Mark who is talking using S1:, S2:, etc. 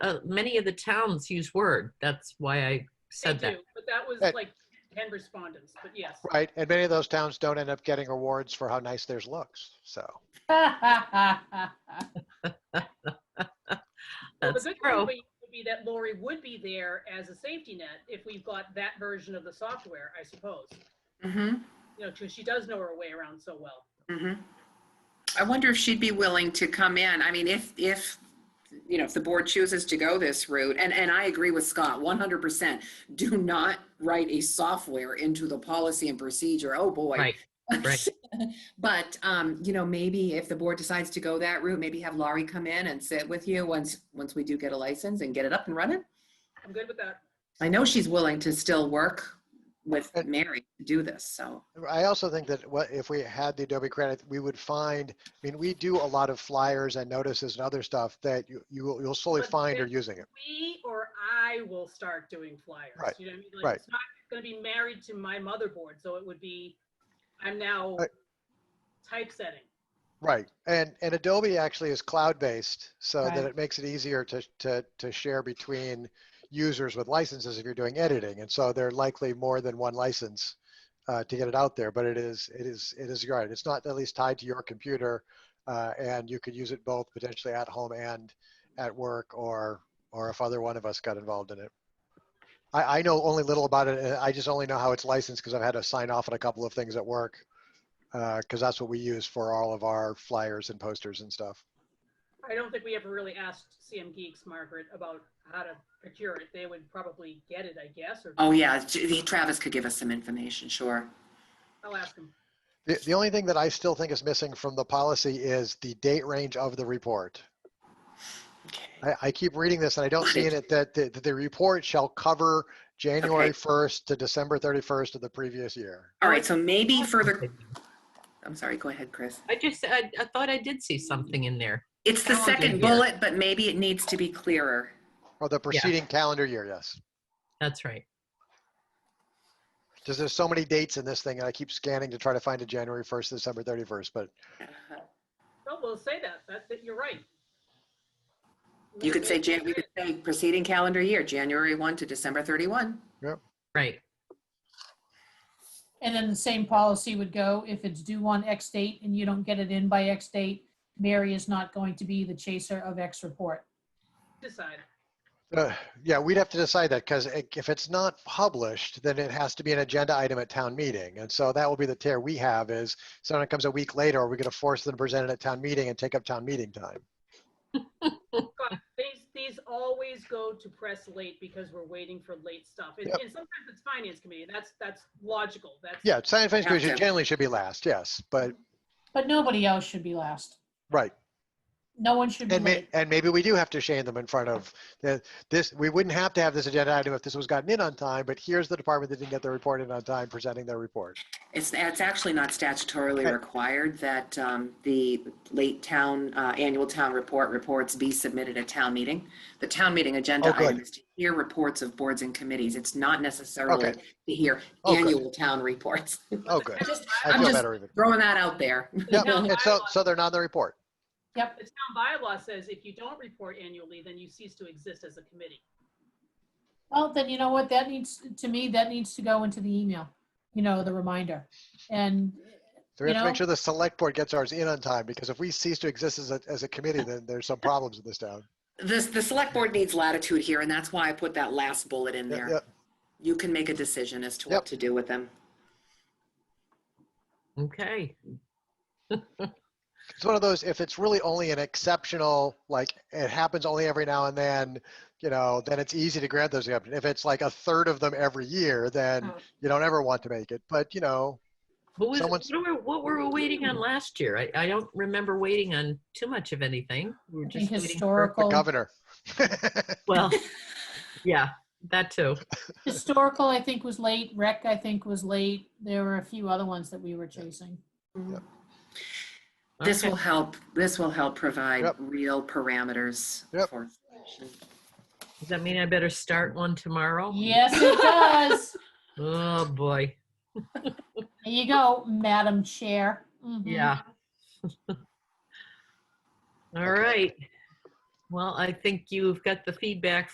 S1: uh, many of the towns use Word. That's why I
S2: They
S1: said that.
S2: do, but that was
S3: That-
S2: like 10 respondents, but yes.
S3: Right, and many of those towns don't end up getting awards for how nice theirs looks, so.
S2: Well, the
S1: That's
S2: good thing
S1: true.
S2: would be- would be that Lori would be there as a safety net if we've got that version of the software, I suppose.
S4: Mm-hmm,
S2: You know, 'cause she does know her way around so well.
S4: mm-hmm. I wonder if she'd be willing to come in. I mean, if, if, you know, if the board chooses to go this route, and, and I agree with Scott, one hundred percent. Do not write a software into the policy and procedure. Oh, boy.
S1: Right. right.
S4: But, um, you know, maybe if the board decides to go that route, maybe have Laurie come in and sit with you once, once we do get a license and get it up and running.
S2: I'm good with that.
S4: I know she's willing to still work with
S3: And-
S4: Mary to do this, so.
S3: I also think that what, if we had the Adobe credit, we would find, I mean, we do a lot of flyers and notices and other stuff that you, you will, you'll slowly
S2: But
S3: find are
S2: they-
S3: using it.
S2: We or I will start doing flyers.
S3: Right,
S2: You know what I mean? Like,
S3: right.
S2: It's not going to be married to my motherboard, so it would be, I'm now
S3: Right.
S2: typesetting.
S3: Right, and, and Adobe actually is cloud-based, so
S5: Right.
S3: that it makes it easier to, to, to share between users with licenses if you're doing editing, and so they're likely more than one license uh, to get it out there, but it is, it is, it is right, it's not at least tied to your computer, uh, and you could use it both potentially at home and at work, or, or if other one of us got involved in it. I, I know only little about it, and I just only know how it's licensed, because I've had to sign off on a couple of things at work, because uh, that's what we use for all of our flyers and posters and stuff.
S2: I don't think we ever really asked CM Geeks, Margaret, about how to procure it. They would probably get it, I guess, or
S4: Oh, yeah, J- Travis could give us some information, sure.
S2: I'll ask them.
S3: The, the only thing that I still think is missing from the policy is the date range of the report. I, I keep reading this and I don't see in it that the, that the report shall cover January
S4: Okay.
S3: 1st to December 31st of the previous year.
S4: All right, so maybe further, I'm sorry, go ahead, Chris.
S1: I just, I, I thought I did see something in there.
S4: It's the
S1: Calendar
S4: second
S1: year.
S4: bullet, but maybe it needs to be clearer.
S3: Or the preceding calendar year, yes.
S1: That's right.
S3: Because there's so many dates in this thing and I keep scanning to try to find a January 1st, to December 31st, but Uh-huh.
S2: No, Oh, we'll say that. That, that you're right.
S4: You could say, Jan- we could say preceding calendar year, January 1 to December 31.
S1: Right.
S5: And then the same policy would go, if it's due on X date and you don't get it in by X date, Mary is not going to be the chaser of X report.
S2: Decide.
S3: Uh, Yeah, we'd have to decide that, because if it's not published, then it has to be an agenda item at town meeting. And so that will be the tear we have is, someone comes a week later, are we going to force them to present it at town meeting and take up town meeting time?
S2: God, These, these always go to press late because we're waiting for late stuff. And,
S3: Yep.
S2: and sometimes it's finance committee. That's, that's logical. That's.
S3: Yeah, science and
S4: Have
S3: Finance Commission
S4: to.
S3: generally should be last, yes, but,
S5: But nobody else should be last.
S3: right.
S4: Mm-hmm.
S5: No one should be
S3: And may,
S5: late.
S3: and maybe we do have to shame them in front of the, this, we wouldn't have to have this agenda item if this was gotten in on time, but here's the department that didn't get their report in on time, presenting their report.
S4: It's, it's actually not statutorily
S3: Okay.
S4: required that um, the late town, uh, annual town report reports be submitted at town meeting. The town meeting
S3: Oh,
S4: agenda
S3: good.
S4: item is to hear reports of boards and committees. It's not necessarily
S3: Okay.
S4: to hear
S3: Oh, good.
S4: annual town reports.
S3: Oh, good.
S4: Just-
S3: I
S4: I'm
S3: feel
S4: just-
S3: better even.
S4: Throwing that out there.
S3: Yeah,
S2: Now,
S3: and so,
S2: bylaw-
S3: so they're not in the report.
S5: Yep.
S2: The town bylaw says if you don't report annually, then you cease to exist as a committee.
S5: Well, then you know what? That needs, to me, that needs to go into the email, you know, the reminder. And
S3: So we
S5: You
S3: have to make
S5: know?
S3: sure the select board gets ours in on time, because if we cease to exist as a, as a committee, then there's some problems in this town.
S4: This, the select board needs latitude here, and that's why I put that last bullet in
S3: Yeah,
S4: there.
S3: yeah.
S4: You can make a decision as to
S3: Yep.
S4: what to do with them.
S1: Okay.
S3: It's one of those, if it's really only an exceptional, like, it happens only every now and then, you know, then it's easy to grab those. exceptions. If it's like a third of them every year, then
S5: Oh.
S3: you don't ever want to make it, but you know,
S1: Who was,
S3: Someone's-
S1: what were, what were we waiting on last year? I, I don't remember waiting on too much of anything. We were
S5: I think
S1: just waiting for,
S3: the
S5: historical,
S3: governor.
S1: well, yeah, that too.
S5: historical, I think was late. Rec, I think was late. There were a few other ones that we were chasing.
S4: This
S1: Okay.
S4: will help, this will help provide
S3: Yep.
S4: real parameters
S3: Yep.
S4: for.
S1: Does that mean I better start one tomorrow?
S5: Yes, it does.
S1: Oh, boy.
S5: There you go, Madam Chair. Mhm.
S1: Yeah. All
S3: Okay.
S1: right. Well, I think you've got the feedback